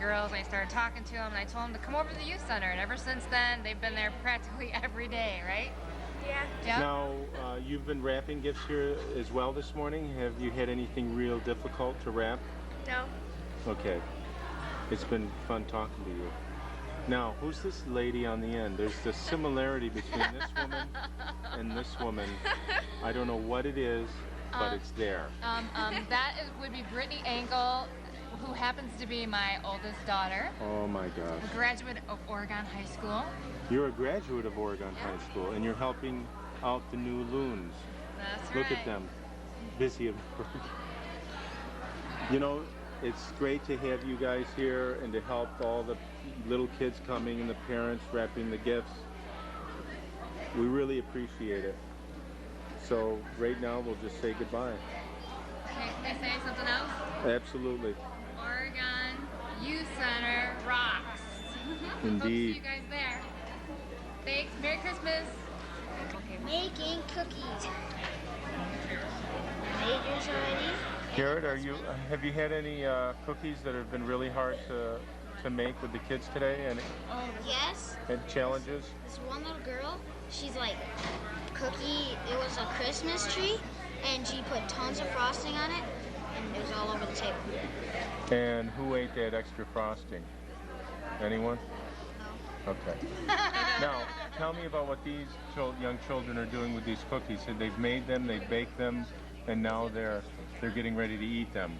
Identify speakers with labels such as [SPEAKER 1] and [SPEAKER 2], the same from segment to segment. [SPEAKER 1] girls and I started talking to them and I told them to come over to the youth center. And ever since then, they've been there practically every day, right?
[SPEAKER 2] Yeah.
[SPEAKER 1] Yeah.
[SPEAKER 3] Now, uh, you've been wrapping gifts here as well this morning. Have you had anything real difficult to wrap?
[SPEAKER 2] No.
[SPEAKER 3] Okay. It's been fun talking to you. Now, who's this lady on the end? There's the similarity between this woman and this woman. I don't know what it is, but
[SPEAKER 2] Uh,
[SPEAKER 3] it's there.
[SPEAKER 1] Um, um, that is, would be Brittany Angle, who happens to be my oldest daughter,
[SPEAKER 3] Oh my
[SPEAKER 1] a
[SPEAKER 3] gosh.
[SPEAKER 1] graduate of Oregon High School.
[SPEAKER 3] You're a graduate of Oregon High School and you're helping out the new loons.
[SPEAKER 1] That's right.
[SPEAKER 3] Look at them, busy at work. You know, it's great to have you guys here and to help all the little kids coming and the parents wrapping the gifts. We really appreciate it. So right now we'll just say goodbye.
[SPEAKER 1] Can can I say something else?
[SPEAKER 3] Absolutely.
[SPEAKER 1] Oregon Youth Center rocks. Hope to see
[SPEAKER 3] Indeed.
[SPEAKER 1] you guys there. Thanks. Merry Christmas. Okay.
[SPEAKER 2] Making cookies. Made yours already?
[SPEAKER 3] Garrett, are you? Have you had any uh, cookies that have been really hard to to make with the kids today and,
[SPEAKER 2] Yes.
[SPEAKER 3] and challenges?
[SPEAKER 2] This one little girl, she's like, cookie, it was a Christmas tree, and she put tons of frosting on it, and it was all over the table.
[SPEAKER 3] And who ate that extra frosting? Anyone? Okay. now, tell me about what these chil- young children are doing with these cookies. So they've made them, they've baked them, and now they're they're getting ready to eat them.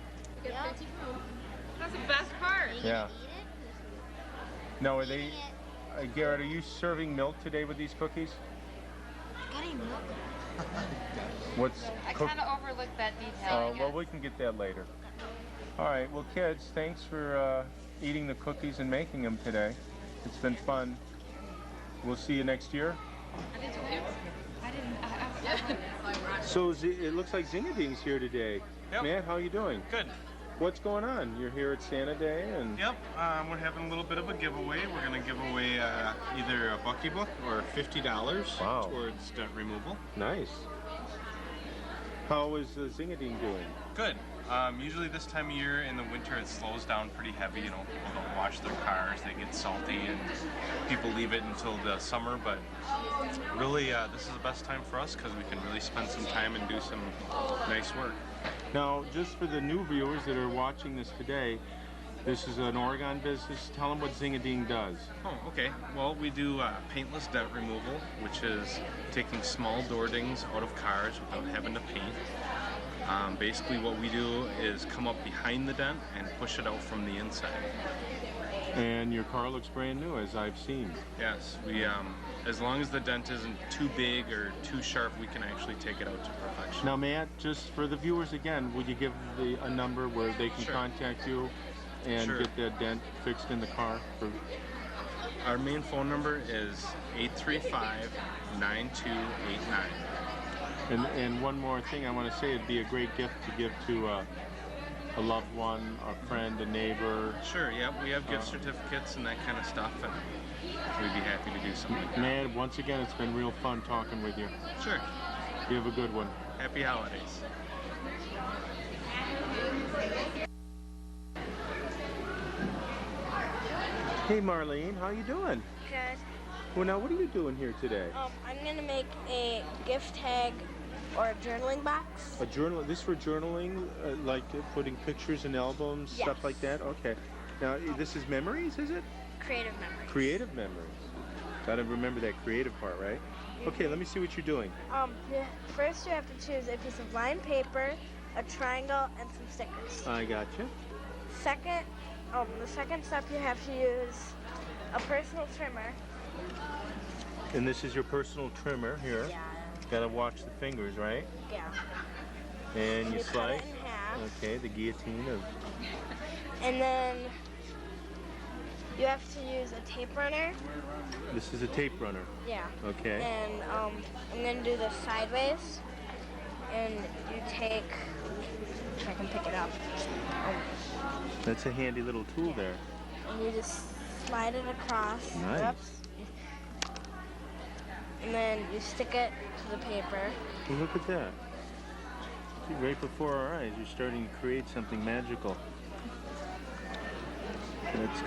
[SPEAKER 2] Yep.
[SPEAKER 1] That's the best part.
[SPEAKER 2] Are you
[SPEAKER 3] Yeah.
[SPEAKER 2] gonna eat
[SPEAKER 3] Now, are
[SPEAKER 2] it?
[SPEAKER 3] they?
[SPEAKER 2] Eating it.
[SPEAKER 3] Uh, Garrett, are you serving milk today with these cookies?
[SPEAKER 2] Got any milk?
[SPEAKER 3] What's
[SPEAKER 1] I
[SPEAKER 3] cook-
[SPEAKER 1] kind of overlooked that detail. Oh, I
[SPEAKER 3] Uh, well,
[SPEAKER 1] guess.
[SPEAKER 3] we can get that later. All right. Well, kids, thanks for uh, eating the cookies and making them today. It's been fun. We'll see you next year. So Z- it looks like Zingading's here today.
[SPEAKER 4] Yep.
[SPEAKER 3] Matt, how you doing?
[SPEAKER 4] Good.
[SPEAKER 3] What's going on? You're here at Santa Day, and
[SPEAKER 4] Yep. Um, we're having a little bit of a giveaway. We're going to give away uh, either a Bucky book or fifty dollars
[SPEAKER 3] Wow.
[SPEAKER 4] towards stunt removal.
[SPEAKER 3] nice. How is uh, Zingading doing?
[SPEAKER 4] Good. Um, usually this time of year in the winter it slows down pretty heavy. You know, people don't wash their cars. They get salty, and people leave it until the summer. But really, uh, this is the best time for us because we can really spend some time and do some nice work.
[SPEAKER 3] Now, just for the new viewers that are watching this today, this is an Oregon business. Tell them what Zingading does.
[SPEAKER 4] Oh, okay. Well, we do uh, paintless dent removal, which is taking small door dings out of cars without having to paint. Um, basically, what we do is come up behind the dent and push it out from the inside.
[SPEAKER 3] And your car looks brand new, as I've seen.
[SPEAKER 4] Yes, we. Um, as long as the dent isn't too big or too sharp, we can actually take it out to perfection.
[SPEAKER 3] Now, Matt, just for the viewers again, would you give the, a number where they can
[SPEAKER 4] Sure.
[SPEAKER 3] contact you and
[SPEAKER 4] Sure.
[SPEAKER 3] get that dent fixed in the car? For,
[SPEAKER 4] Our main phone number is 835-9289.
[SPEAKER 3] and, and one more thing I want to say, it'd be a great gift to give to uh, a loved one, a friend, a neighbor.
[SPEAKER 4] Sure. Yep. We have gift certificates and that kind of stuff, and we'd be happy to do something. like
[SPEAKER 3] Matt, once again, it's been real fun talking with you.
[SPEAKER 4] that. Sure.
[SPEAKER 3] You have a good one.
[SPEAKER 4] Happy holidays.
[SPEAKER 3] Hey, Marlene, how you doing?
[SPEAKER 5] Good.
[SPEAKER 3] Well, now, what are you doing here today?
[SPEAKER 5] Um, I'm gonna make a gift tag or a journaling box.
[SPEAKER 3] A journal. This for journaling, uh, like uh, putting pictures in albums, stuff like that.
[SPEAKER 5] Yes.
[SPEAKER 3] Okay. Now, i- this is memories, is it?
[SPEAKER 5] Creative memory.
[SPEAKER 3] Creative memories. Gotta remember that creative part, right? Okay, let me see what you're doing.
[SPEAKER 5] Um, yeah, first you have to choose a piece of lined paper, a triangle, and some stickers.
[SPEAKER 3] I gotcha.
[SPEAKER 5] Second, um, the second step you have to use a personal trimmer.
[SPEAKER 3] And this is your personal trimmer here. Gotta watch the fingers, right?
[SPEAKER 5] Yeah.
[SPEAKER 3] And you
[SPEAKER 5] You cut
[SPEAKER 3] slice.
[SPEAKER 5] it in half,
[SPEAKER 3] Okay, the guillotine of.
[SPEAKER 5] and then you have to use a tape runner.
[SPEAKER 3] This is a tape runner.
[SPEAKER 5] Yeah.
[SPEAKER 3] Okay.
[SPEAKER 5] And um, I'm gonna do this sideways, and you take. If I can pick it up. Um,
[SPEAKER 3] That's a handy little tool there.
[SPEAKER 5] and you just slide it across.
[SPEAKER 3] Nice.
[SPEAKER 5] And then you stick it to the paper.
[SPEAKER 3] Well, look at that. See, right before our eyes, you're starting to create something magical. and it's